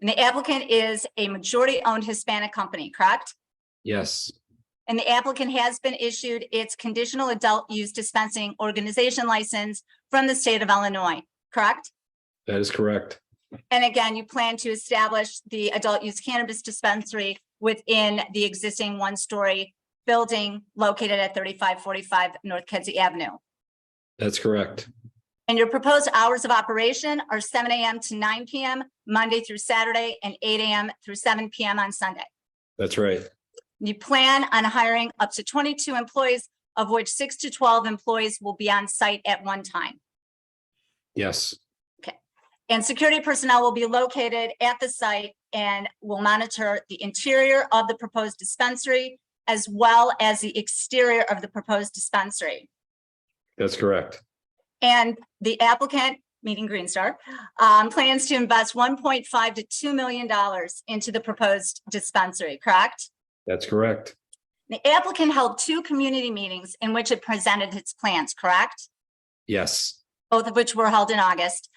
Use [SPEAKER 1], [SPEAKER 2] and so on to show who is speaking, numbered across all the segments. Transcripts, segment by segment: [SPEAKER 1] And the applicant is a majority-owned Hispanic company, correct?
[SPEAKER 2] Yes,
[SPEAKER 1] And the applicant has been issued its conditional adult use dispensing organization license from the state of Illinois, correct?
[SPEAKER 2] that is correct.
[SPEAKER 1] And again, you plan to establish the adult use cannabis dispensary within the existing one-story building located at thirty-five forty-five North Kedzie Avenue.
[SPEAKER 2] That's correct.
[SPEAKER 1] And your proposed hours of operation are seven AM to nine PM, Monday through Saturday, and eight AM through seven PM on Sunday.
[SPEAKER 2] That's right.
[SPEAKER 1] You plan on hiring up to twenty-two employees, of which six to twelve employees will be on site at one time.
[SPEAKER 2] Yes,
[SPEAKER 1] And security personnel will be located at the site and will monitor the interior of the proposed dispensary as well as the exterior of the proposed dispensary.
[SPEAKER 2] that's correct.
[SPEAKER 1] And the applicant, meaning Green Star, um, plans to invest one point five to two million dollars into the proposed dispensary, correct?
[SPEAKER 2] That's correct.
[SPEAKER 1] The applicant held two community meetings in which it presented its plans, correct?
[SPEAKER 2] Yes,
[SPEAKER 1] both of which were held in August.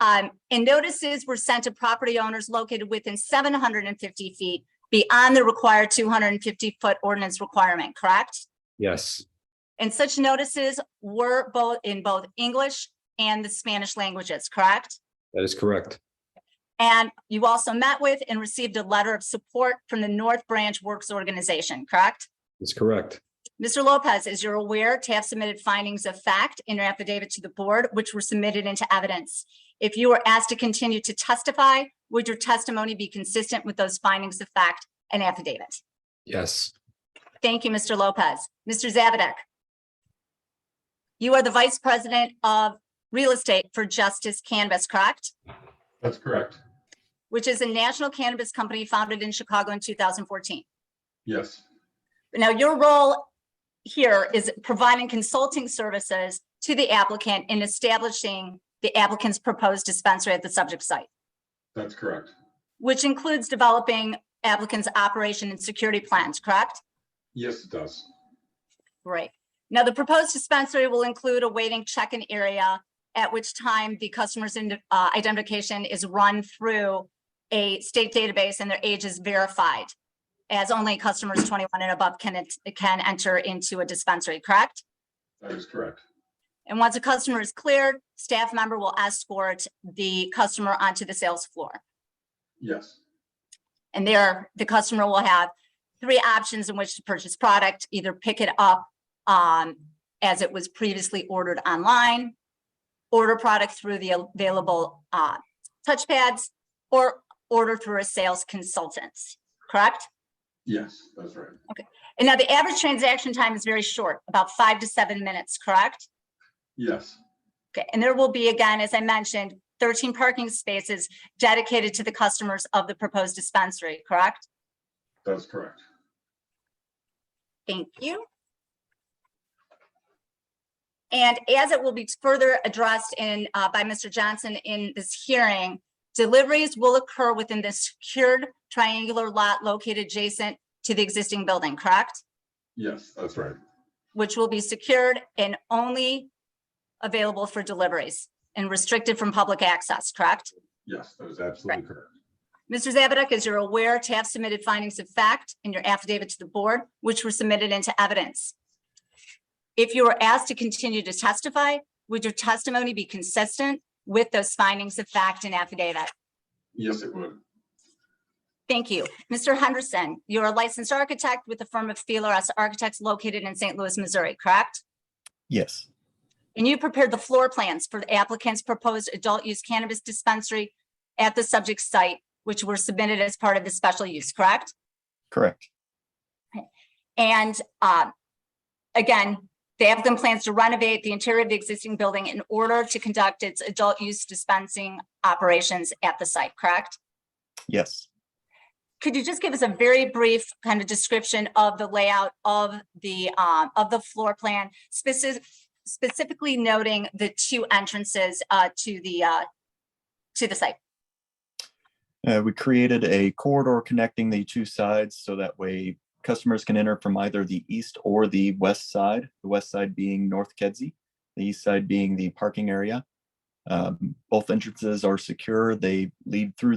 [SPEAKER 1] Um, and notices were sent to property owners located within seven hundred and fifty feet beyond the required two hundred and fifty foot ordinance requirement, correct?
[SPEAKER 2] yes,
[SPEAKER 1] And such notices were both in both English and the Spanish languages, correct?
[SPEAKER 2] that is correct.
[SPEAKER 1] And you also met with and received a letter of support from the North Branch Works Organization, correct?
[SPEAKER 2] That's correct.
[SPEAKER 1] Mr. Lopez, as you're aware, TAF submitted findings of fact in your affidavit to the board, which were submitted into evidence. If you were asked to continue to testify, would your testimony be consistent with those findings of fact and affidavit?
[SPEAKER 2] Yes,
[SPEAKER 1] Thank you, Mr. Lopez. Mr. Zabadek. You are the Vice President of Real Estate for Justice Canvas, correct?
[SPEAKER 3] That's correct.
[SPEAKER 1] Which is a national cannabis company founded in Chicago in 2014.
[SPEAKER 3] Yes,
[SPEAKER 1] Now, your role here is providing consulting services to the applicant in establishing the applicant's proposed dispensary at the subject site,
[SPEAKER 3] that's correct.
[SPEAKER 1] which includes developing applicant's operation and security plans, correct?
[SPEAKER 3] Yes, it does.
[SPEAKER 1] Great. Now, the proposed dispensary will include a waiting check-in area, at which time the customer's ind- uh, identification is run through a state database and their age is verified, as only customers 21 and above can, ent- can enter into a dispensary, correct?
[SPEAKER 3] That is correct.
[SPEAKER 1] And once a customer is cleared, staff member will escort the customer onto the sales floor.
[SPEAKER 3] Yes,
[SPEAKER 1] And there, the customer will have three options in which to purchase product, either pick it up um, as it was previously ordered online, order product through the available uh, touchpads, or order through a sales consultant, correct?
[SPEAKER 3] yes, that's right.
[SPEAKER 1] And now the average transaction time is very short, about five to seven minutes, correct?
[SPEAKER 3] Yes,
[SPEAKER 1] Okay, and there will be, again, as I mentioned, thirteen parking spaces dedicated to the customers of the proposed dispensary, correct?
[SPEAKER 3] that's correct.
[SPEAKER 1] Thank you. And as it will be further addressed in, uh, by Mr. Johnson in this hearing, deliveries will occur within the secured triangular lot located adjacent to the existing building, correct?
[SPEAKER 3] Yes, that's right.
[SPEAKER 1] Which will be secured and only available for deliveries and restricted from public access, correct?
[SPEAKER 3] Yes, that is absolutely correct.
[SPEAKER 1] Mr. Zabaduk, as you're aware, TAF submitted findings of fact in your affidavit to the board, which were submitted into evidence. If you were asked to continue to testify, would your testimony be consistent with those findings of fact and affidavit?
[SPEAKER 3] Yes, it would.
[SPEAKER 1] Thank you. Mr. Henderson, you're a licensed architect with the firm of Feeler S Architects located in St. Louis, Missouri, correct?
[SPEAKER 4] Yes,
[SPEAKER 1] And you prepared the floor plans for the applicant's proposed adult use cannabis dispensary at the subject site, which were submitted as part of the special use, correct?
[SPEAKER 4] correct.
[SPEAKER 1] And uh, again, the applicant plans to renovate the interior of the existing building in order to conduct its adult use dispensing operations at the site, correct?
[SPEAKER 4] Yes,
[SPEAKER 1] Could you just give us a very brief kind of description of the layout of the, um, of the floor plan, specific, specifically noting the two entrances uh, to the, uh, to the site?
[SPEAKER 4] Uh, we created a corridor connecting the two sides so that way customers can enter from either the east or the west side. The west side being North Kedzie, the east side being the parking area. Um, both entrances are secure. They lead through the